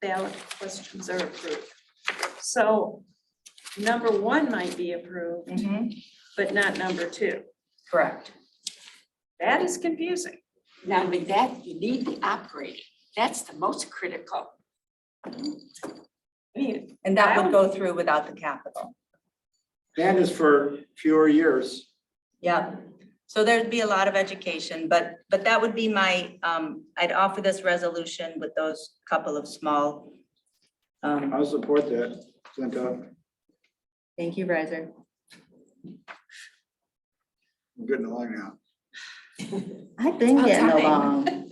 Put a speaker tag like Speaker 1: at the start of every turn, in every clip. Speaker 1: ballot questions are approved. So number one might be approved,
Speaker 2: Mhm,
Speaker 1: but not number two.
Speaker 2: Correct.
Speaker 1: That is confusing.
Speaker 3: Now, with that, you need the operating. That's the most critical.
Speaker 1: I mean,
Speaker 2: And that would go through without the capital.
Speaker 4: That is for fewer years.
Speaker 2: Yeah. So there'd be a lot of education, but, but that would be my, um, I'd offer this resolution with those couple of small. Um,
Speaker 4: I'll support that. Sent up.
Speaker 2: thank you, Riser.
Speaker 4: I'm getting along now.
Speaker 5: I've been
Speaker 3: About
Speaker 5: getting
Speaker 3: time.
Speaker 5: along.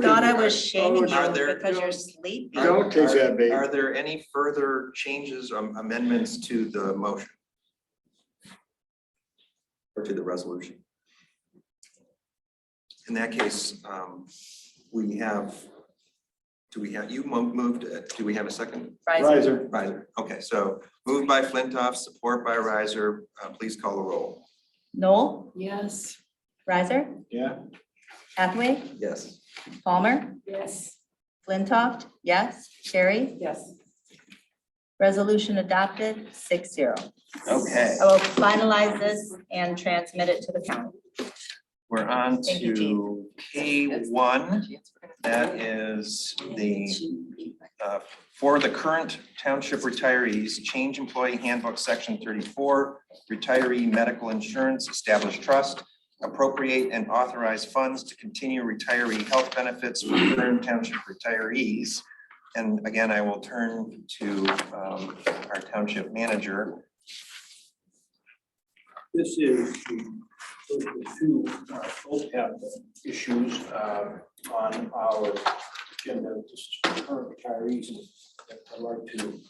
Speaker 2: Thought I was shaming
Speaker 6: Are
Speaker 2: you
Speaker 6: there-
Speaker 2: because you're sleepy.
Speaker 6: Are-
Speaker 4: Don't take that, babe.
Speaker 6: Are there any further changes or amendments to the motion? Or to the resolution? In that case, um, we have, do we have, you mo- moved, uh, do we have a second?
Speaker 2: Riser,
Speaker 4: Riser,
Speaker 6: Riser, okay, so moved by Flintoff, support by Riser, uh, please call the roll.
Speaker 2: Noel,
Speaker 3: Yes.
Speaker 2: Riser,
Speaker 4: yeah.
Speaker 2: Hathaway,
Speaker 6: Yes.
Speaker 2: Palmer,
Speaker 3: Yes.
Speaker 2: Flintoff, yes, Sherry.
Speaker 3: Yes.
Speaker 2: Resolution adopted, six zero.
Speaker 6: Okay,
Speaker 2: I will finalize this and transmit it to the county.
Speaker 6: we're on
Speaker 2: Thank you,
Speaker 6: to K one, that is the uh, for the current township retirees, change employee handbook, section thirty-four, retiree medical insurance, establish trust, appropriate and authorize funds to continue retiree health benefits for current township retirees. And again, I will turn to um, our township manager.
Speaker 7: This is the those are the two, uh, both have issues uh, on our agenda, just current retirees. I'd like to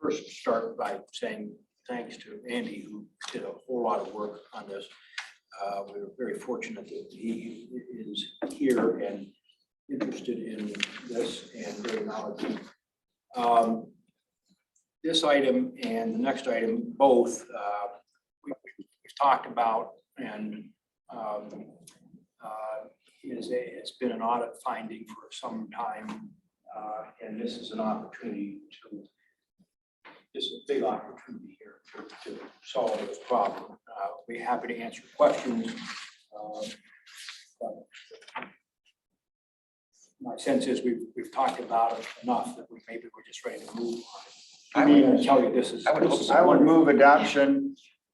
Speaker 7: first start by saying thanks to Andy, who did a whole lot of work on this. Uh, We were very fortunate that he is here and interested in this and very knowledgeable. Um, This item and the next item, both uh, we've talked about and um, uh, is a, it's been an audit finding for some time. uh, And this is an opportunity to, this is a big opportunity here to- to solve this problem. Uh, We're happy to answer questions. um, but My sense is we've, we've talked about it enough that we maybe we're just ready to move on.
Speaker 4: I
Speaker 7: I
Speaker 4: mean-
Speaker 7: would tell you this is.
Speaker 6: I would-
Speaker 7: this is a
Speaker 4: I would
Speaker 7: wonderful-
Speaker 4: move adoption.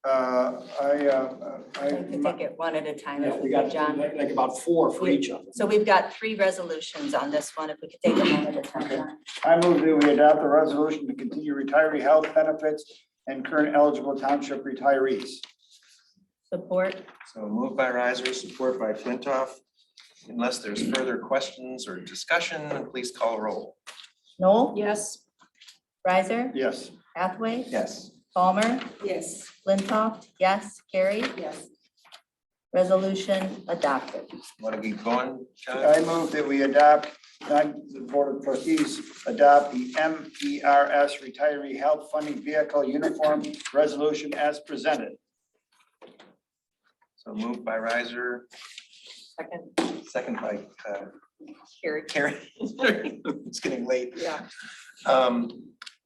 Speaker 4: Uh, I, uh,
Speaker 2: I can
Speaker 4: I,
Speaker 2: take it one at a time
Speaker 7: Yeah,
Speaker 2: if
Speaker 7: we
Speaker 2: we
Speaker 7: got
Speaker 2: John.
Speaker 7: like like about four for each of them.
Speaker 2: So we've got three resolutions on this one, if we could take them one at a time. John.
Speaker 4: I move that we adopt the resolution to continue retiree health benefits and current eligible township retirees.
Speaker 2: Support,
Speaker 6: So moved by riser, support by Flintoff. Unless there's further questions or discussion, please call roll.
Speaker 2: Noel,
Speaker 1: Yes,
Speaker 2: Riser,
Speaker 4: Yes,
Speaker 2: Hathaway,
Speaker 6: Yes.
Speaker 2: Palmer,
Speaker 3: Yes.
Speaker 2: Flintoff, yes, Carrie,
Speaker 3: Yes.
Speaker 2: resolution adopted.
Speaker 6: Want to keep going, John?
Speaker 4: I move that we adopt, uh, the Board of Trustees adopt the M E R S retiree health funding vehicle uniform resolution as presented.
Speaker 6: So moved by riser,
Speaker 2: Second,
Speaker 6: second by uh,
Speaker 2: Carrie.
Speaker 6: Karen. It's getting late.
Speaker 2: Yeah.
Speaker 6: Um,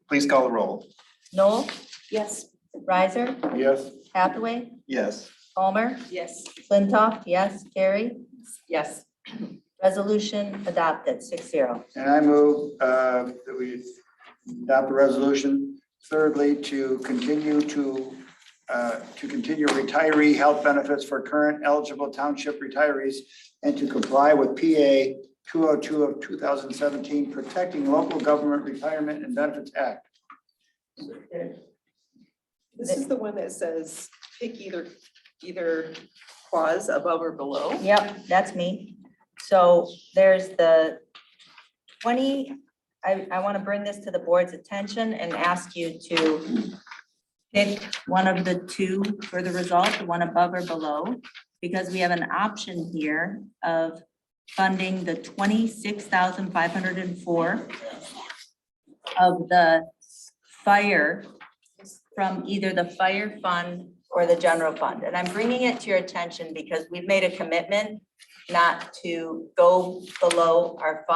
Speaker 6: Please call the roll.
Speaker 2: Noel,
Speaker 3: Yes.
Speaker 2: Riser,
Speaker 4: Yes.
Speaker 2: Hathaway,
Speaker 6: Yes.
Speaker 2: Palmer,
Speaker 3: Yes.
Speaker 2: Flintoff, yes, Carrie,
Speaker 3: Yes.
Speaker 2: resolution adopted, six zero.
Speaker 4: And I move uh, that we adopt the resolution thirdly to continue to, uh, to continue retiree health benefits for current eligible township retirees and to comply with PA 202 of 2017, Protecting Local Government Retirement and Benefits Act.
Speaker 8: This is the one that says pick either, either clause above or below.
Speaker 2: Yep, that's me. So there's the twenty, I, I want to bring this to the board's attention and ask you to pick one of the two for the result, the one above or below, because we have an option here of funding the twenty-six thousand five hundred and four of the fire from either the fire fund or the general fund. And I'm bringing it to your attention because we've made a commitment not to go below our fund